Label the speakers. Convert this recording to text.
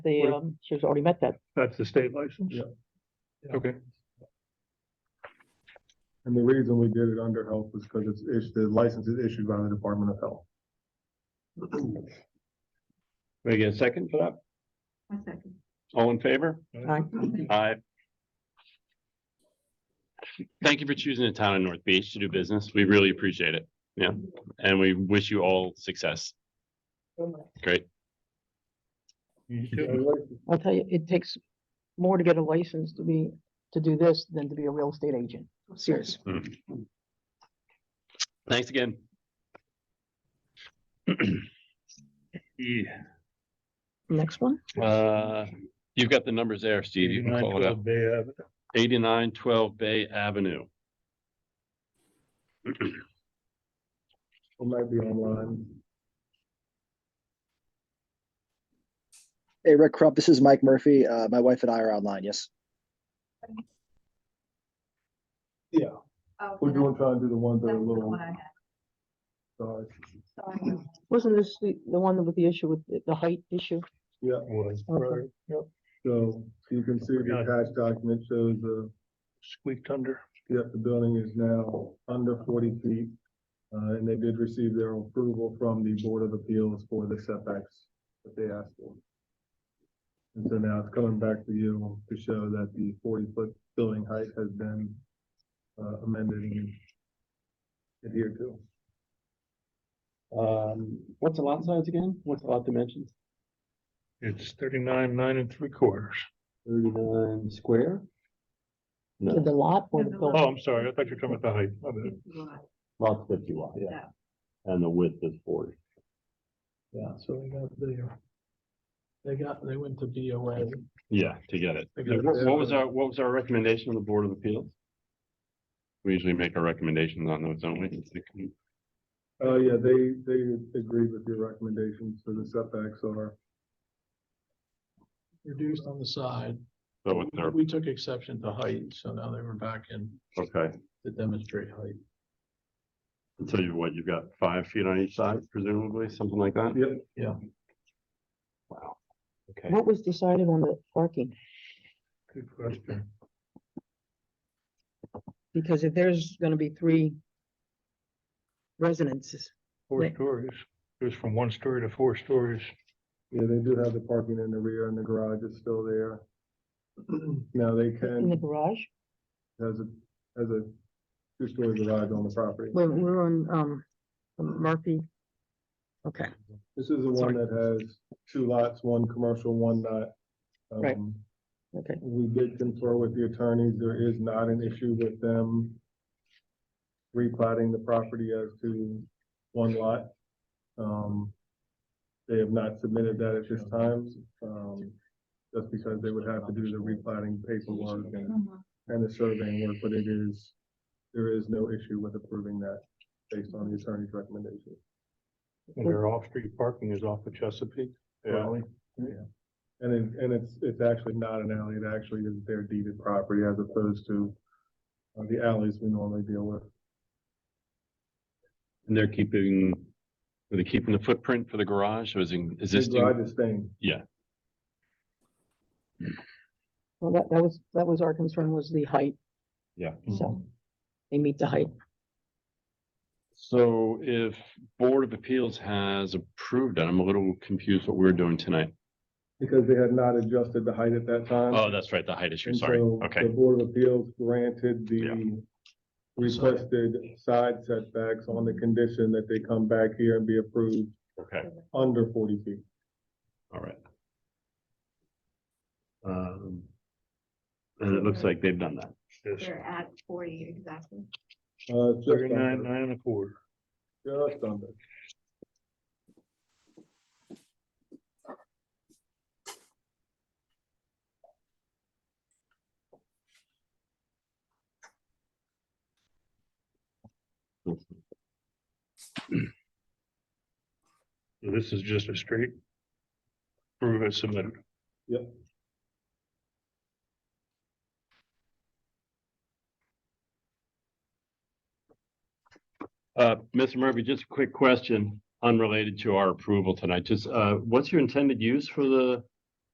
Speaker 1: the,
Speaker 2: Right.
Speaker 1: um, she's already met that.
Speaker 2: That's the state license?
Speaker 3: Yeah.
Speaker 2: Okay,
Speaker 3: And the reason we did it under health is because it's, is- the license is issued by the Department of Health.
Speaker 4: We get a second for that?
Speaker 5: A second.
Speaker 4: All in favor?
Speaker 1: Aye.
Speaker 4: Aye. Thank you for choosing the town of North Beach to do business. We really appreciate it. Yeah, and we wish you all success. Great.
Speaker 1: I'll tell you, it takes more to get a license to be, to do this than to be a real estate agent. Serious.
Speaker 4: Thanks again.
Speaker 2: Yeah.
Speaker 1: Next one?
Speaker 4: Uh, you've got the numbers there, Steve. You can call it up.
Speaker 2: 8912 Bay Avenue.
Speaker 4: Eighty-nine twelve Bay Avenue.
Speaker 3: It might be online.
Speaker 6: Hey, Rick Krupp, this is Mike Murphy. Uh, my wife and I are online, yes.
Speaker 3: Yeah,
Speaker 5: Oh,
Speaker 3: we're
Speaker 5: and
Speaker 3: doing, trying to do the ones that
Speaker 5: that's
Speaker 3: are a
Speaker 5: the
Speaker 3: little,
Speaker 5: one I had.
Speaker 3: sorry,
Speaker 5: Sorry.
Speaker 1: Wasn't this the, the one with the issue with the- the height issue?
Speaker 3: yeah.
Speaker 2: Was uh,
Speaker 1: Okay.
Speaker 3: So you can see the attached document shows the,
Speaker 2: squeaked under.
Speaker 3: yep, the building is now under forty feet. Uh, and they did receive their approval from the Board of Appeals for the setbacks that they asked for. And so now it's coming back to you to show that the forty-foot building height has been uh, amended and adhered to.
Speaker 4: Um, what's the lot size again? What's the lot dimensions?
Speaker 2: It's thirty-nine, nine and three quarters.
Speaker 4: Thirty-nine square?
Speaker 1: To
Speaker 4: No,
Speaker 1: The lot or the
Speaker 5: Yeah, the
Speaker 2: Oh,
Speaker 1: building?
Speaker 2: I'm sorry, I thought you were talking about the height. My bad.
Speaker 5: It's the one
Speaker 4: lot fifty wide,
Speaker 5: I-
Speaker 4: yeah,
Speaker 5: yeah.
Speaker 4: and the width is forty.
Speaker 7: Yeah, so they got the, they got, they went to BOA.
Speaker 4: Yeah, to get it.
Speaker 3: I got it.
Speaker 4: What what was our, what was our recommendation on the Board of Appeals? We usually make our recommendations on those, don't we?
Speaker 3: Oh, yeah, they, they agreed with your recommendations, so the setbacks are,
Speaker 7: reduced on the side.
Speaker 4: So with our,
Speaker 7: We took exception to height, so now they were back in
Speaker 4: okay,
Speaker 7: to demonstrate height.
Speaker 4: and so you, what, you've got five feet on each side presumably, something like that?
Speaker 3: yep,
Speaker 4: Wow. Okay,
Speaker 1: What was decided on the parking?
Speaker 2: Good question.
Speaker 1: Because if there's gonna be three residences,
Speaker 2: Four
Speaker 1: Wait.
Speaker 2: stories. It was from one story to four stories.
Speaker 3: yeah, they do have the parking in the rear and the garage is still there. Now they
Speaker 1: in the
Speaker 3: can,
Speaker 1: garage,
Speaker 3: has a, has a two-story garage on the property.
Speaker 1: we're, we're on, um, Murphy. Okay,
Speaker 3: This is the
Speaker 1: Sorry.
Speaker 3: one that has two lots, one commercial, one not.
Speaker 1: Right.
Speaker 3: Um,
Speaker 1: okay.
Speaker 3: We did confer with the attorneys, there is not an issue with them replatting the property as to one lot. Um, they have not submitted that at this time, um, just because they would have to do the replatting paperwork and,
Speaker 5: Mhm.
Speaker 3: and the surveying work, but it is, there is no issue with approving that based on the attorney's recommendation.
Speaker 2: And their off-street parking is off of Chesapeake. Raleigh.
Speaker 3: And it, and it's, it's actually not an alley, it actually is their deeded property as opposed to uh, the alleys we normally deal with.
Speaker 4: and they're keeping, are they keeping the footprint for the garage, or is it
Speaker 3: The
Speaker 4: existing?
Speaker 3: garage is staying.
Speaker 1: Well, that, that was, that was our concern was the height,
Speaker 4: Yeah.
Speaker 1: so they meet the height.
Speaker 4: So if Board of Appeals has approved it, I'm a little confused what we're doing tonight.
Speaker 3: Because they had not adjusted the height at that time.
Speaker 4: Oh, that's right, the height issue,
Speaker 3: And
Speaker 4: sorry,
Speaker 3: so The
Speaker 4: okay,
Speaker 3: Board of Appeals granted
Speaker 4: Yeah.
Speaker 3: the requested side setbacks on the condition that they come back here and be approved
Speaker 4: okay,
Speaker 3: under forty feet.
Speaker 4: all right. Um, and it looks like they've done that.
Speaker 2: Yes.
Speaker 5: They're at forty exactly.
Speaker 3: Uh, it's just
Speaker 2: Thirty-nine,
Speaker 3: under,
Speaker 2: nine and a quarter.
Speaker 3: just under.
Speaker 2: So This is just a straight. Prove it submitted.
Speaker 4: Uh, Mr. Murphy, just a quick question unrelated to our approval tonight. Just, uh, what's your intended use for the